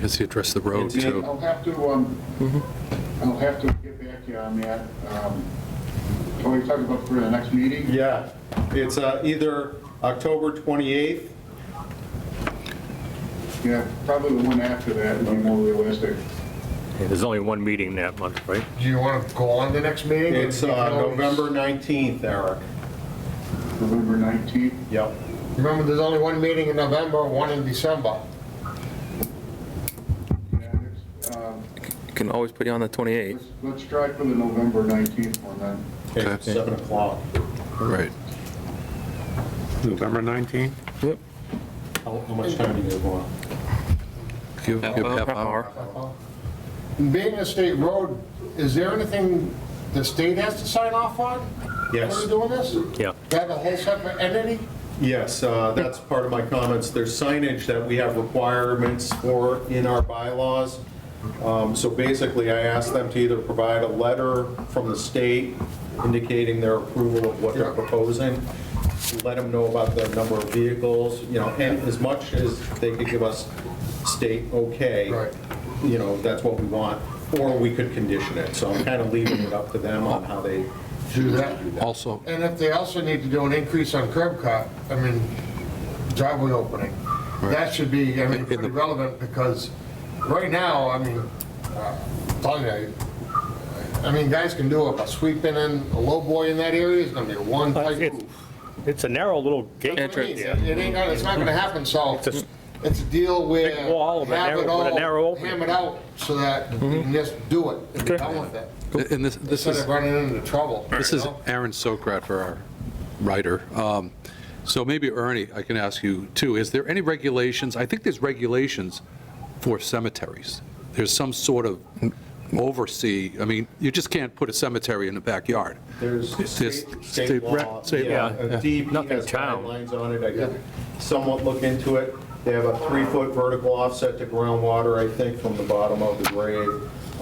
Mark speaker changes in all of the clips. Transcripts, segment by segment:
Speaker 1: has he addressed the road
Speaker 2: Um, I'll
Speaker 1: too?
Speaker 2: have to, um,
Speaker 3: Mm-hmm.
Speaker 2: I'll have to get back to you on that. Um, Are we talking about for the next meeting?
Speaker 4: Yeah, it's uh, either October 28th,
Speaker 2: Yeah, probably the one after that would be more realistic.
Speaker 5: There's only one meeting that month, right?
Speaker 3: Do you want to go on the next meeting?
Speaker 4: it's uh, November 19th, Eric.
Speaker 2: November 19th,
Speaker 4: Yep.
Speaker 3: Remember, there's only one meeting in November, one in December.
Speaker 2: yeah, it's, um,
Speaker 1: Can always put you on the 28th.
Speaker 2: let's, let's try for the November 19th one then.
Speaker 4: It's 7 o'clock.
Speaker 1: Right.
Speaker 6: November 19th?
Speaker 1: Yep.
Speaker 4: How how much time do you guys want?
Speaker 1: Give give half hour.
Speaker 3: Being a state road, is there anything the state has to sign off on? When
Speaker 4: Yes,
Speaker 3: we're doing this?
Speaker 5: Yeah.
Speaker 3: That a whole separate entity?
Speaker 4: yes, uh, that's part of my comments. There's signage that we have requirements for in our bylaws. Um, So basically, I asked them to either provide a letter from the state indicating their approval of what they're proposing, let them know about the number of vehicles, you know, and as much as they could give us state okay.
Speaker 3: Right.
Speaker 4: You know, that's what we want, or we could condition it. So I'm kind of leaving it up to them on how they
Speaker 3: Do that.
Speaker 1: Also,
Speaker 3: And if they also need to do an increase on curb cut, I mean, driveway opening, that should be, I mean,
Speaker 1: In the-
Speaker 3: pretty relevant, because right now, I mean, uh, I'm telling you, I mean, guys can do it, but sweeping in a low boy in that area is gonna be a one tight
Speaker 5: It's-
Speaker 3: move.
Speaker 5: It's a narrow little gate.
Speaker 3: That's what I mean.
Speaker 5: Yeah.
Speaker 3: It ain't gonna, it's not gonna happen, so it's a deal where
Speaker 5: Big wall with a
Speaker 3: have it
Speaker 5: narrow- with a narrow
Speaker 3: all
Speaker 5: opening. Mm-hmm.
Speaker 3: hammered out, so that you can just do it, and be done with it,
Speaker 1: and this, this
Speaker 3: instead
Speaker 1: is,
Speaker 3: of running into trouble.
Speaker 1: this
Speaker 3: you
Speaker 1: is
Speaker 3: know?
Speaker 1: Aaron Sokrat for our writer. Um, So maybe Ernie, I can ask you too, is there any regulations, I think there's regulations for cemeteries. There's some sort of oversee, I mean, you just can't put a cemetery in the backyard.
Speaker 4: There's
Speaker 1: There's
Speaker 4: state-
Speaker 1: state
Speaker 4: state law.
Speaker 1: rec- state
Speaker 4: yeah,
Speaker 1: law,
Speaker 4: uh,
Speaker 1: yeah.
Speaker 4: DEP
Speaker 5: Nothing
Speaker 4: has
Speaker 5: town.
Speaker 4: guidelines on it, I could somewhat look into it. They have a three-foot vertical offset to groundwater, I think, from the bottom of the grade.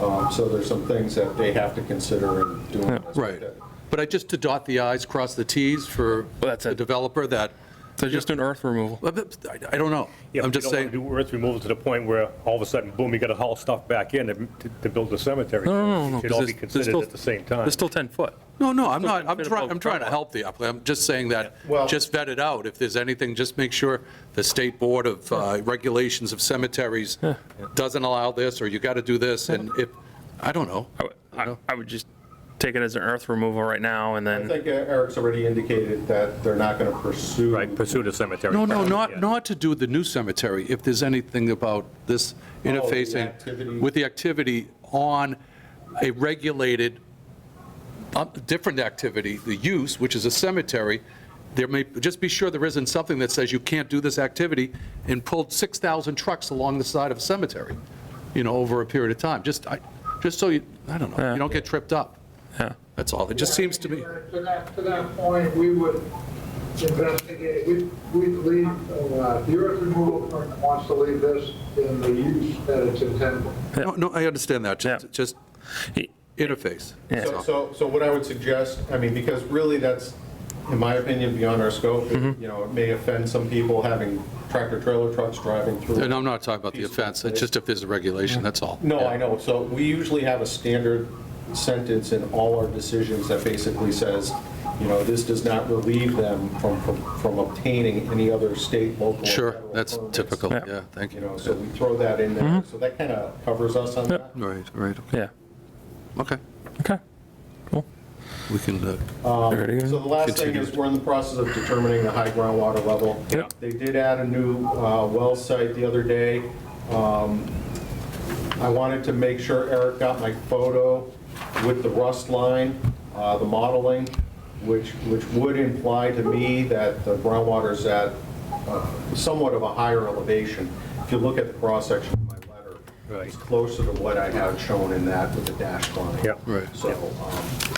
Speaker 4: Um, So there's some things that they have to consider in doing this.
Speaker 1: Right. But I just to dot the i's, cross the t's for
Speaker 7: Well, that's
Speaker 1: the
Speaker 7: it.
Speaker 1: developer that,
Speaker 7: So just an earth removal.
Speaker 1: I I don't know.
Speaker 5: Yeah,
Speaker 1: I'm
Speaker 5: but you
Speaker 1: just
Speaker 5: don't
Speaker 1: saying,
Speaker 5: wanna Do earth removal to the point where all of a sudden, boom, you gotta haul stuff back in to- to build the cemetery.
Speaker 7: No, no, no, no,
Speaker 5: It should all
Speaker 7: 'cause
Speaker 5: be
Speaker 7: there's- there's
Speaker 5: considered
Speaker 7: still-
Speaker 5: at the same time.
Speaker 7: There's still 10 foot.
Speaker 1: no, no, I'm not, I'm
Speaker 7: Still
Speaker 1: trying, I'm trying to help the applicant. I'm just saying that,
Speaker 4: Well-
Speaker 1: just vet it out. If there's anything, just make sure the State Board of uh, Regulations of Cemeteries doesn't allow this, or you got to do this, and if, I don't know.
Speaker 7: I would- I I would just take it as an earth removal right now and
Speaker 4: I
Speaker 7: then,
Speaker 4: think E- Eric's already indicated that they're not going to pursue.
Speaker 5: Right, pursue the cemetery.
Speaker 1: No, no,
Speaker 5: first,
Speaker 1: not,
Speaker 5: yeah.
Speaker 1: not to do with the new cemetery, if there's anything about this
Speaker 4: activity.
Speaker 1: interfacing with the Oh, activity on a regulated, uh, different activity, the use, which is a cemetery, there may, just be sure there isn't something that says you can't do this activity and pull 6,000 trucks along the side of a cemetery, you know, over a period of time. Just, I, just so you, I don't know, you don't get tripped up.
Speaker 7: Yeah.
Speaker 1: That's all. It just seems to me.
Speaker 8: To that, to that point, we would investigate, we, we'd leave, uh, the earth removal permit wants to leave this in the use that it's intended.
Speaker 1: No, no, I understand that,
Speaker 7: Yeah.
Speaker 1: just, just interface.
Speaker 7: Yeah.
Speaker 4: So- So, so what I would suggest, I mean, because really that's, in my opinion, beyond our scope.
Speaker 1: Mm-hmm.
Speaker 4: It- You know, it may offend some people having tractor-trailer trucks driving through.
Speaker 1: And I'm not talking about the offense, it's just if there's a regulation, that's all.
Speaker 4: No, I know. So we usually have a standard sentence in all our decisions that basically says, you know, this does not relieve them from, from- from obtaining any other state, local. or
Speaker 1: Sure,
Speaker 4: federal
Speaker 1: that's
Speaker 4: permits.
Speaker 1: typical,
Speaker 7: Yeah.
Speaker 1: yeah, thank
Speaker 4: You
Speaker 1: you. Mm-hmm.
Speaker 4: know, so we throw that in there. So that kind of covers us on that.
Speaker 1: Right, right,
Speaker 7: yeah.
Speaker 1: okay.
Speaker 7: Okay.
Speaker 1: We can, uh,
Speaker 7: There it
Speaker 4: So
Speaker 7: is.
Speaker 4: the last thing is, we're in the process of determining the high groundwater level.
Speaker 7: Yep.
Speaker 4: They did add a new uh, well site the other day. Um, I wanted to make sure Eric got my photo with the rust line, uh, the modeling, which, which would imply to me that the groundwater's at uh, somewhat of a higher elevation. If you look at the cross-section of my letter,
Speaker 5: Right.
Speaker 4: it's closer to what I have shown in that with the dashed line.
Speaker 5: Yep.
Speaker 1: Right.
Speaker 4: So, um,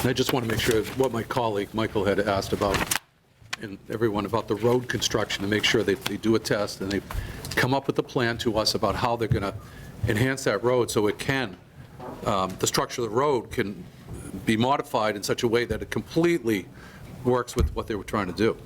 Speaker 1: and I just want to make sure what my colleague, Michael, had asked about, and everyone, about the road construction, to make sure that they do a test and they come up with a plan to us about how they're going to enhance that road so it can, um, the structure of the road can be modified in such a way that it completely works with what they were trying to do.